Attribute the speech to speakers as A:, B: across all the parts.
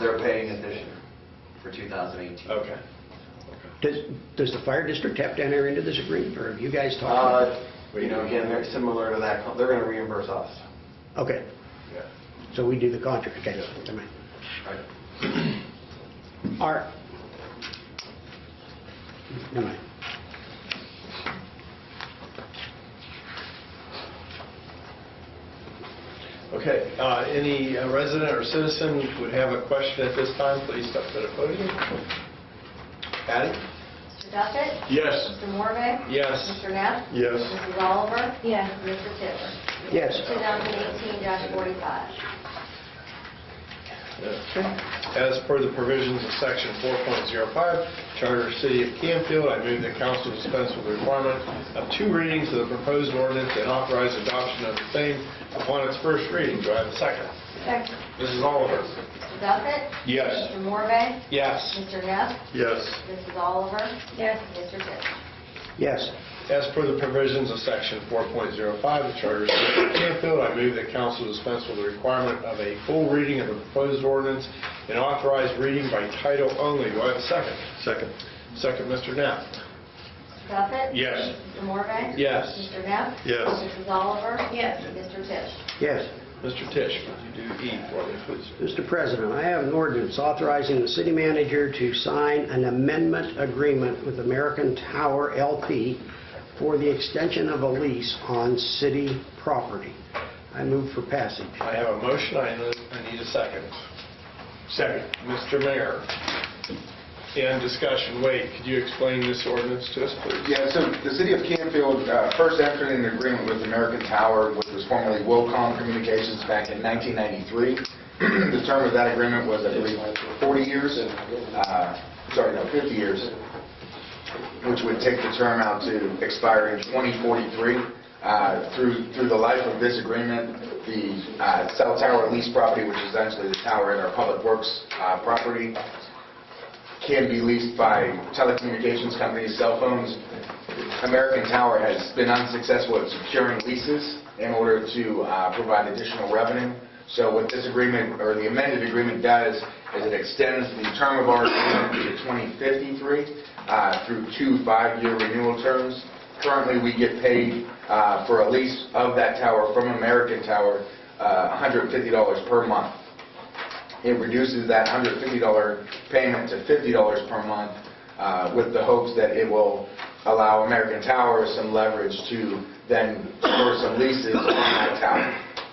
A: They're paying it this year for 2018.
B: Okay.
C: Does, does the fire district have to enter into this agreement, or have you guys talked?
A: Uh, You know, again, they're similar to that, co- they're going to reimburse us.
C: Okay,
B: Yeah.
C: so we do the contract, okay, never mind.
A: Right.
C: All right. Never mind.
B: Okay, uh, any uh, resident or citizen who would have a question at this time, please step to the podium. Patty?
D: Mr. Duffett?
B: Yes.
D: Mr. Morve?
B: Yes.
D: Mr. Neff?
B: Yes.
D: Mrs. Oliver? Yes. Mr. Tippler?
C: Yes.
D: 2018-45.
B: As per the provisions of Section 4.05 Charter of the City of Campfield, I move that council dispense with the requirement of two readings of the proposed ordinance and authorize adoption of the same upon its first reading. Do I have a second?
D: Second.
B: Mrs. Oliver?
D: Mr. Duffett?
B: Yes.
D: Mr. Morve?
B: Yes.
D: Mr. Neff?
B: Yes.
D: Mrs. Oliver? Yes. Mr. Tippler?
C: Yes.
B: As per the provisions of Section 4.05 of the Charter of the City of Campfield, I move that council dispense with the requirement of a full reading of the proposed ordinance and authorize reading by title only. Do I have a second? Second. Second, Mr. Knapp.
D: Mr. Duffett?
B: Yes.
D: Mr. Morve?
B: Yes.
D: Mr. Neff?
B: Yes.
D: Mrs. Oliver? Yes. Mr. Tippler?
C: Yes.
B: Mr. Tisch, would you do E for me, please?
C: Mr. President, I have an ordinance authorizing the city manager to sign an amendment agreement with American Tower LP for the extension of a lease on city property. I move for passage.
B: I have a motion, I need- I need a second. Second. Mr. Mayor, in discussion, wait, could you explain this ordinance to us, please?
E: Yeah, so the city of Campfield uh, first entered an agreement with American Tower, which was formerly Wilcom Communications back in 1993. The term of that agreement was, I believe, 40 years, uh, sorry, no, 50 years, which would take the term out to expire in 2043. Uh, Through through the life of this agreement, the uh, cell tower lease property, which is essentially the tower in our public works uh, property, can be leased by telecommunications companies, cell phones. American Tower has been unsuccessful at securing leases in order to uh, provide additional revenue. So what this agreement, or the amended agreement does, is it extends the term of our agreement to 2053 uh, through two five-year renewal terms. Currently, we get paid uh, for a lease of that tower from American Tower, uh, $150 per month it reduces that $150 payment to $50 per month uh, with the hopes that it will allow American Tower some leverage to then score some leases on that tower.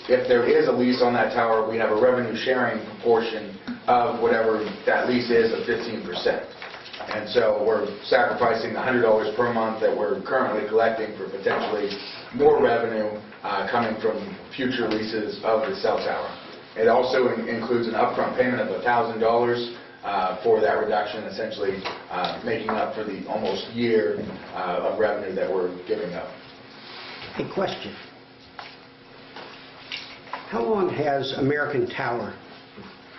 E: If there is a lease on that tower, we have a revenue sharing proportion of whatever that lease is of 15%. And so we're sacrificing the $100 per month that we're currently collecting for potentially more revenue uh, coming from future leases of the cell tower. It also in- includes an upfront payment of $1,000 uh, for that reduction, essentially uh, making up for the almost year uh, of revenue that we're giving up.
C: A question. How long has American Tower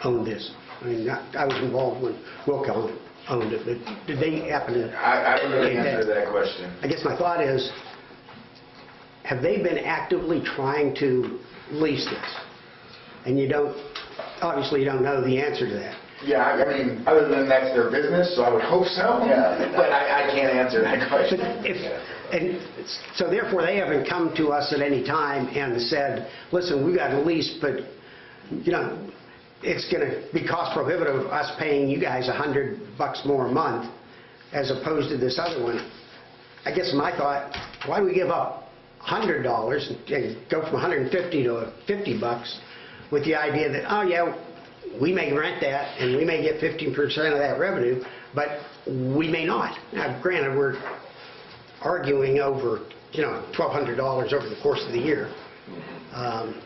C: owned this? I mean, I I was involved when Wilco owned it, but did they happen to?
E: I I don't know the answer to that question.
C: I guess my thought is, have they been actively trying to lease this? And you don't, obviously you don't know the answer to that.
E: Yeah, I I mean, other than that's their business, so I would hope so, but I I can't answer that
C: But
E: question.
C: if, and it's- so therefore, they haven't come to us at any time and said, listen, we got a lease, but, you know, it's going to be cost prohibitive of us paying you guys a 100 bucks more a month as opposed to this other one. I guess my thought, why do we give up $100 and go from 150 to 50 bucks with the idea that, oh, yeah, we may rent that and we may get 15% of that revenue, but we may not. Now, granted, we're arguing over, you know, $1,200 over the course of the year. Um,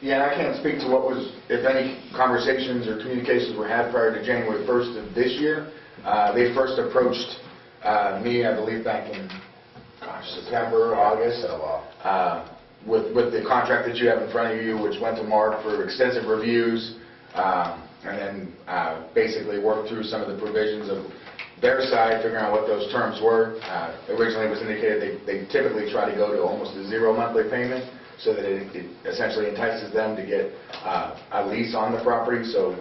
E: Yeah, and I can't speak to what was, if any conversations or communications were had prior to January 1st of this year. Uh, They first approached uh, me, I believe, back in, gosh, September, August, uh, with, with the contract that you have in front of you, which went to Mark for extensive reviews, um, and then uh, basically worked through some of the provisions of their side, figuring out what those terms were. Uh, Originally, it was indicated they they typically try to go to almost a zero monthly payment, so that it it essentially entices them to get uh, a lease on the property, so